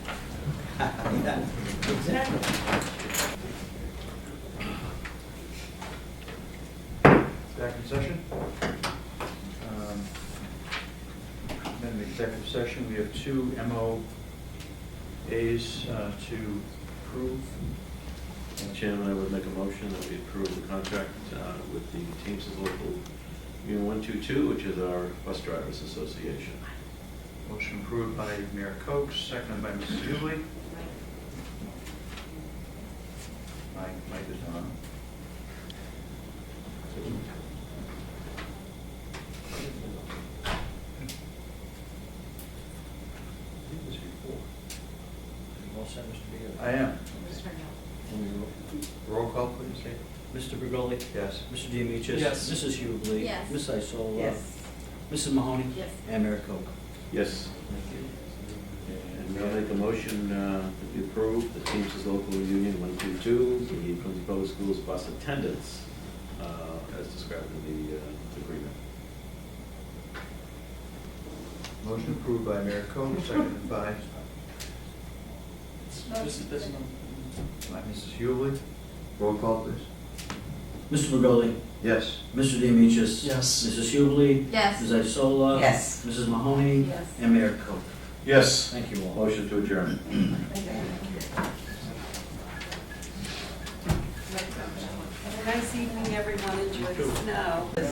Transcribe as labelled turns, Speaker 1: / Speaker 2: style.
Speaker 1: doing that. Exactly.
Speaker 2: Back in session. Um, Then the executive session, we have two MOAs uh, to approve.
Speaker 3: Mr. Chairman, I would make a motion that we approve the contract uh, with the Teamsters Local Union 122, which is our Bus Drivers Association.
Speaker 2: Motion approved by Mayor Cox, seconded by Mrs. Dooley. Mike, Mike is on.
Speaker 1: Well said, Mr. Beal.
Speaker 2: I am.
Speaker 1: And
Speaker 2: Roll call, please.
Speaker 1: Mr. Begoli?
Speaker 2: Yes.
Speaker 1: Mr. Demichis?
Speaker 4: Yes.
Speaker 1: Mrs. Hubley?
Speaker 5: Yes.
Speaker 1: Ms. Isola?
Speaker 4: Yes.
Speaker 1: Mrs. Mahoney?
Speaker 5: Yes.
Speaker 1: And Mayor Koch.
Speaker 3: Yes, and I'll make a motion uh, that we approve the Teamsters Local Union 122, the Quincy Public Schools bus attendance, uh, as described in the uh, agreement.
Speaker 2: Motion approved by Mayor Cox, seconded by
Speaker 4: This is, this is.
Speaker 2: by Mrs. Hewley. Roll call, please.
Speaker 1: Mr. Begoli?
Speaker 2: Yes.
Speaker 1: Mr. Demichis?
Speaker 4: Yes.
Speaker 1: Mrs. Hubley?
Speaker 5: Yes.
Speaker 1: Ms. Isola?
Speaker 4: Yes.
Speaker 1: Mrs. Mahoney?
Speaker 5: Yes.
Speaker 1: And Mayor Koch.
Speaker 3: Yes.
Speaker 1: Thank you all.
Speaker 3: Motion to adjourn.
Speaker 5: Have a nice evening, everyone. Enjoy the snow.